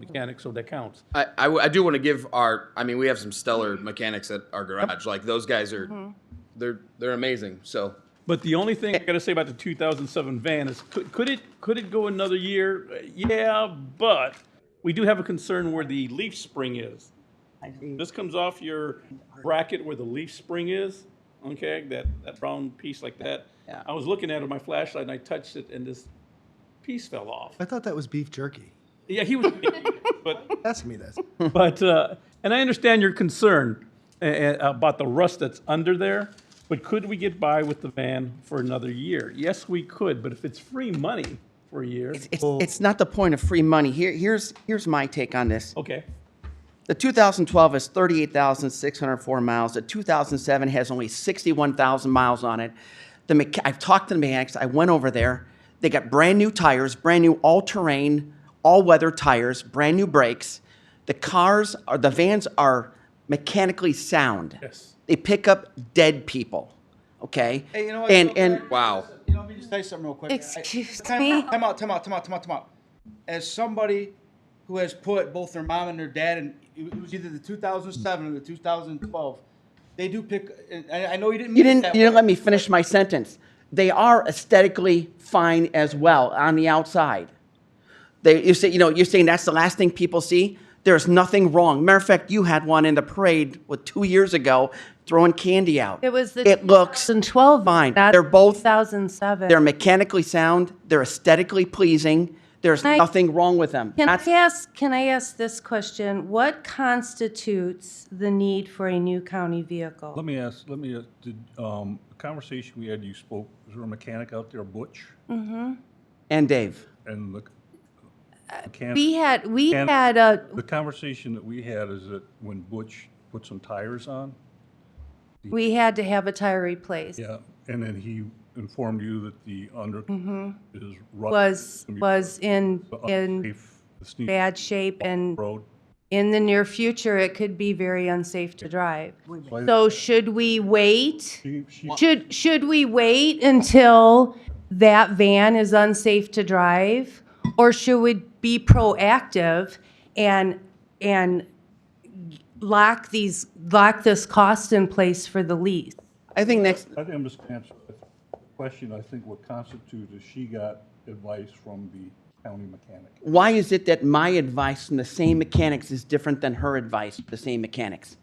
mechanic, so that counts. I, I w- I do want to give our. I mean, we have some stellar mechanics at our garage. Like those guys are, they're they're amazing. So But the only thing I gotta say about the 2007 van is, could, could it, could it go another year? Uh, Yeah, but we do have a concern where the leaf spring is. This comes off your bracket where the leaf spring is, okay, that, that brown piece like that. Yeah. I was looking at it with my flashlight and I touched it and this piece fell off. I thought that was beef jerky. Yeah, he was, but Ask me this. But, uh, and I understand your concern uh, uh, about the rust that's under there, but could we get by with the van for another year? Yes, we could, but if it's free money for a year, It's, it's not the point of free money. Here, here's, here's my take on this. Oh. okay. The 2012 is 38,604 miles. The 2007 has only 61,000 miles on it. The mecha- I've talked to the mechanics. I went over there. They got brand new tires, brand new all-terrain, all-weather tires, brand new brakes. The cars are the vans are mechanically sound. Yes. They pick up dead people. Okay. Hey, you know what? And Real quick. and wow, You know, let me just tell you something real quick. I- Excuse time me? Out, time out, time out, time out, time out, time out. As somebody who has put both their mom and their dad, and it was either the 2007 or the 2012, they do pick. And I, I know you didn't. You mean it didn't, that you didn't way. let me finish my sentence. They are aesthetically fine as well on the outside. They, you say, you know, you're saying that's the last thing people see. There's nothing wrong. Matter of fact, you had one in the parade with two years ago throwing candy out. It was the. It looks 2012. fine. not They're both- 2007. They're mechanically sound. They're aesthetically pleasing. There's Can I- nothing wrong with them. Can I That's- ask, can I ask this question? What constitutes the need for a new county vehicle? Let me ask, let me, uh, did, um, the conversation we had, you spoke, was there a mechanic out there, Butch? and Dave. And the mechanic? Uh, We had, we And- had uh, a, The conversation that we had is that when Butch put some tires on, we had to have a tire replaced. yeah, and then he informed you that the under is Mm-hmm. rough. Was, was in, in The steep bad shape and road. in the near future, it could be very unsafe to drive. So should we wait? She- she- Should, should we wait until that van is unsafe to drive? Or should we be proactive and, and lock these, lock this cost in place for the lease? I think next, I think I'm just gonna answer the question, I think what constitutes is she got advice from the county mechanic. why is it that my advice from the same mechanics is different than her advice, the same mechanics?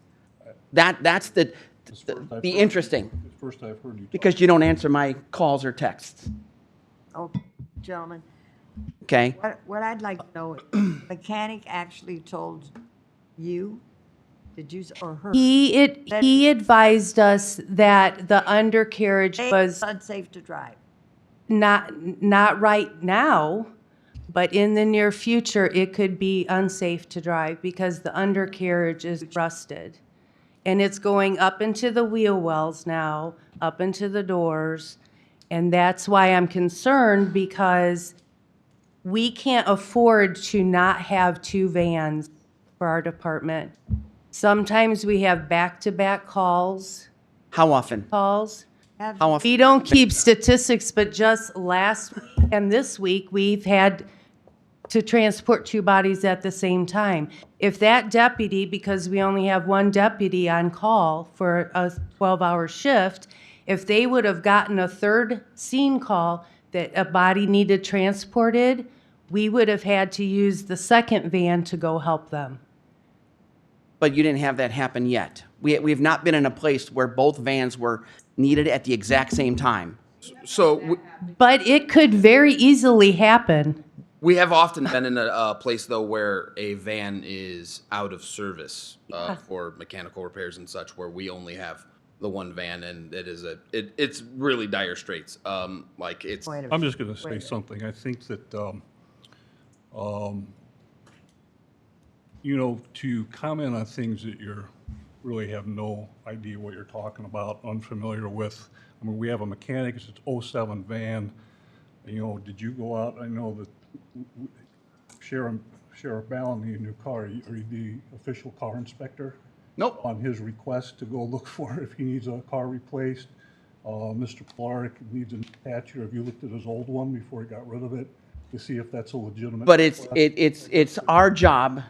That, that's the, First the, I've the heard- interesting. First I've heard you talk. because you don't answer my calls or texts, Okay, Oh, gentlemen, okay? what, what I'd like to know, is, mechanic actually told you, did you, s- or her? He, it, he advised us that the undercarriage Hey, was it's Unsafe to drive. not, not right now, but in the near future, it could be unsafe to drive because the undercarriage is rusted. And it's going up into the wheel wells now, up into the doors. And that's why I'm concerned because we can't afford to not have two vans for our department. Sometimes we have back-to-back calls, How often? calls. Have- How often? We don't keep statistics, but just last week and this week, we've had to transport two bodies at the same time. If that deputy, because we only have one deputy on call for a 12-hour shift, if they would have gotten a third scene call that a body needed transported, we would have had to use the second van to go help them. But you didn't have that happen yet. We, we have not been in a place where both vans were needed at the exact same time. so we, But it could very easily happen. we have often been in a, a place though where a van is out of service uh, for mechanical repairs and such, where we only have the one van, and it is a it, it's really dire straits. Um, like it's Wait a minute. I'm just going to say something. I think that, um, um, you know, to comment on things that you're, really have no idea what you're talking about, unfamiliar with. I mean, we have a mechanic, it's an 07 van. You know, did you go out? I know that w- w- Sheriff, Sheriff Ballamy, in your car, are you are you the official car inspector? Nope. On his request to go look for if he needs a car replaced. Uh, Mr. Clark needs a new patch, or have you looked at his old one before he got rid of it? to see if that's a legitimate. But it's, it, it's, it's our job